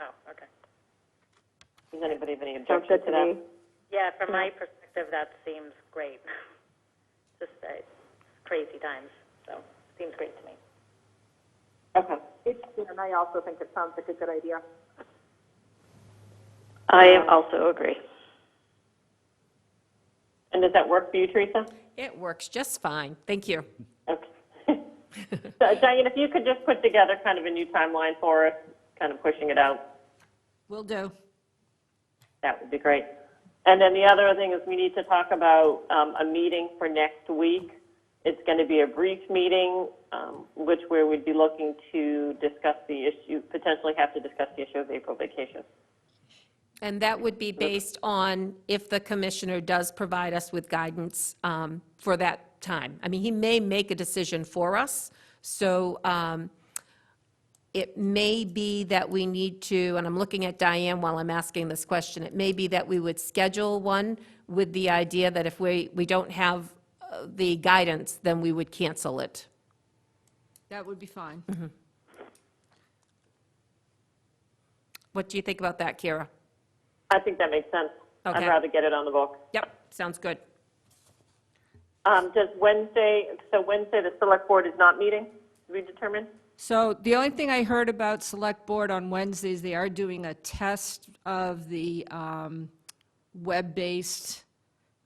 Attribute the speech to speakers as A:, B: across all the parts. A: Oh,
B: Does anybody have any
C: Sounds
B: objection
C: good
B: to
C: to
B: that?
C: me.
A: Yeah, from my perspective, that seems great. Just, uh, it's crazy times, so, seems great to me.
B: Okay.
C: And I also think it sounds like a good idea.
B: I also agree. And does that work for you, Teresa?
D: It works just fine. Thank you.
B: Okay. So, Diane, if you could just put together kind of a new timeline for us, kind of pushing it out,
D: Will do.
B: that would be great. And then the other thing is we need to talk about um, a meeting for next week. It's going to be a brief meeting, um, which where we'd be looking to discuss the issue, potentially have to discuss the issue of April vacation.
D: And that would be based on if the commissioner does provide us with guidance um, for that time. I mean, he may make a decision for us, so um, it may be that we need to, and I'm looking at Diane while I'm asking this question, it may be that we would schedule one with the idea that if we, we don't have uh, the guidance, then we would cancel it.
E: That would be fine.
D: What do you think about that, Kira?
B: I think that makes sense. I'd
D: Okay.
B: rather get it on the book.
D: Yep, sounds good.
B: Um, Does Wednesday, so Wednesday, the select board is not meeting, did we determine?
E: So the only thing I heard about Select Board on Wednesdays, they are doing a test of the um, web-based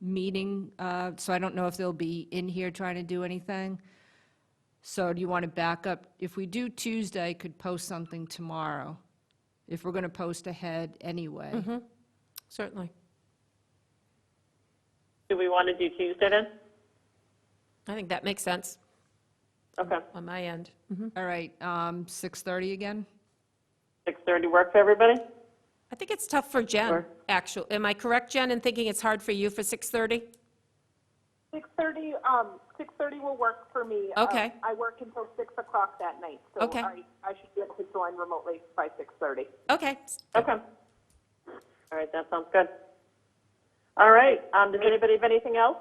E: meeting, uh, so I don't know if they'll be in here trying to do anything. So do you want to back up? If we do Tuesday, I could post something tomorrow, if we're going to post ahead anyway.
B: Mm-hmm.
D: Certainly.
B: Do we want to do Tuesday then?
D: I think that makes sense
B: Okay,
D: on my end.
E: All right, um, 6:30 again?
B: 6:30 work for everybody?
D: I think it's tough for Jen,
B: Sure.
D: actually. Am I correct, Jen, in thinking it's hard for you for 6:30?
C: Six thirty, um, six thirty will work for me. Um,
D: Okay.
C: I work until six o'clock that night, so
D: Okay.
C: I, I should be able to join remotely by six thirty.
D: Okay,
B: Okay. All right, that sounds good. All right, um, does anybody have anything else?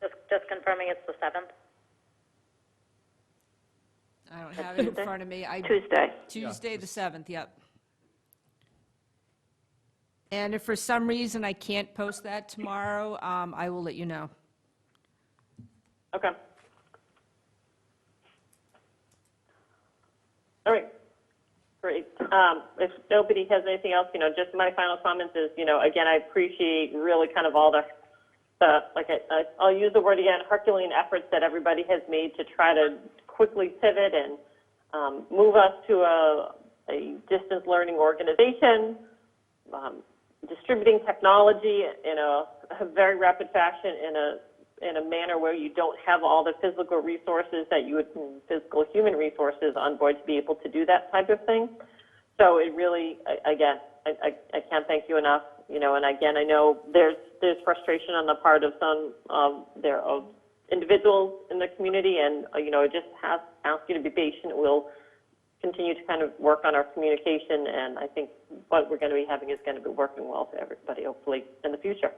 A: Just, just confirming it's the seventh?
E: I don't have it in
B: Tuesday?
E: front of me. I
B: Tuesday.
E: Tuesday, the 7th, yep. And if for some reason I can't post that tomorrow, um, I will let you know.
B: Okay. All right, great. Um, If nobody has anything else, you know, just my final comments is, you know, again, I appreciate really kind of all the, the like, I- I- I'll use the word again, Herculean efforts that everybody has made to try to quickly pivot and um, move us to a, a distance learning organization, um, distributing technology in a, a very rapid fashion in a in a manner where you don't have all the physical resources that you would physical human resources on board to be able to do that type of thing. So it really, a- again, I, I, I can't thank you enough. You know, and again, I know there's there's frustration on the part of some of their of individuals in the community, and uh, you know, just have, ask you to be patient. We'll continue to kind of work on our communication, and I think what we're going to be having is going to be working well for everybody, hopefully, in the future.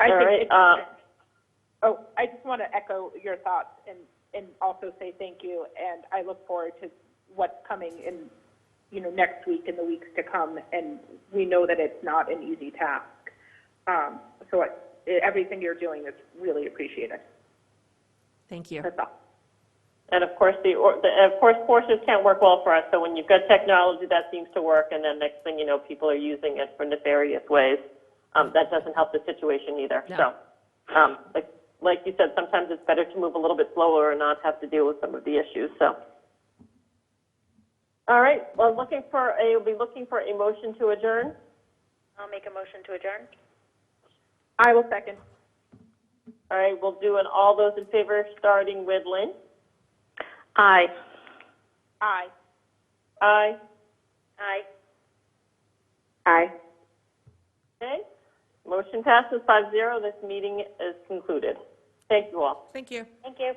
F: I
B: All right,
F: think,
B: uh,
F: it's- oh, I just want to echo your thoughts and, and also say thank you. And I look forward to what's coming in, you know, next week and the weeks to come. And we know that it's not an easy task. Um, so I- everything you're doing is really appreciated.
D: thank you.
F: That's all.
B: And of course, the, or- the of course, courses can't work well for us. So when you've got technology that seems to work, and then next thing you know, people are using it for nefarious ways, um, that doesn't help the situation either.
D: No.
B: So, um, like, like you said, sometimes it's better to move a little bit slower and not have to deal with some of the issues. So. All right. Well, looking for a, we'll be looking for a motion to adjourn.
A: I'll make a motion to adjourn.
F: I will second.
B: All right. We'll do an all those in favor, starting with Lynn.
A: Aye.
F: Aye.
B: Aye.
A: Aye.
F: Aye.
B: Okay. Motion passes five zero. This meeting is concluded. Thank you all.
D: Thank you.
A: Thank you.